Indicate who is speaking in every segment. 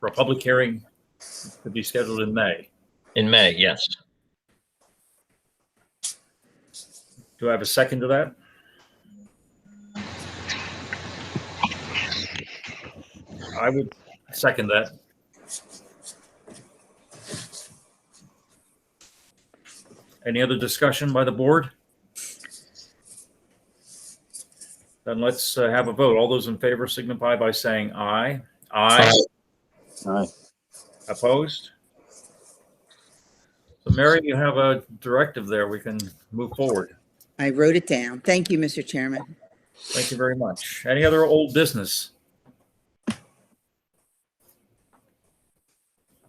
Speaker 1: for a public hearing to be scheduled in May.
Speaker 2: In May, yes.
Speaker 1: Do I have a second to that? I would second that. Any other discussion by the board? Then let's uh, have a vote. All those in favor signify by saying aye. Aye.
Speaker 3: Aye.
Speaker 1: Opposed? So Mary, you have a directive there. We can move forward.
Speaker 4: I wrote it down. Thank you, Mr. Chairman.
Speaker 1: Thank you very much. Any other old business?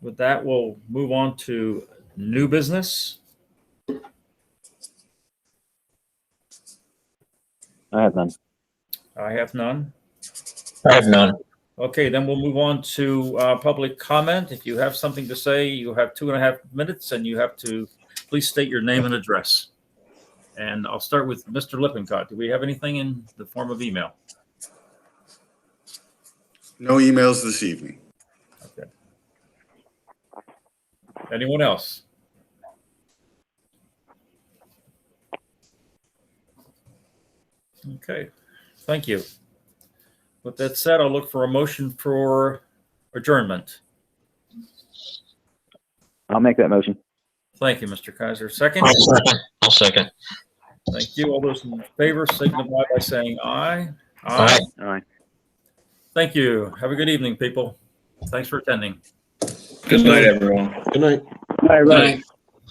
Speaker 1: With that, we'll move on to new business.
Speaker 3: I have none.
Speaker 1: I have none.
Speaker 2: I have none.
Speaker 1: Okay, then we'll move on to uh, public comment. If you have something to say, you have two and a half minutes and you have to please state your name and address. And I'll start with Mr. Lippincott. Do we have anything in the form of email?
Speaker 5: No emails this evening.
Speaker 1: Anyone else? Okay, thank you. With that said, I'll look for a motion for adjournment.
Speaker 3: I'll make that motion.
Speaker 1: Thank you, Mr. Kaiser. Second,
Speaker 2: I'll second. I'll second.
Speaker 1: thank you. All those in favor signify by saying aye.
Speaker 2: Aye.
Speaker 3: Aye.
Speaker 1: Thank you. Have a good evening, people. Thanks for attending.
Speaker 6: Good night, everyone. Good night.
Speaker 3: All right.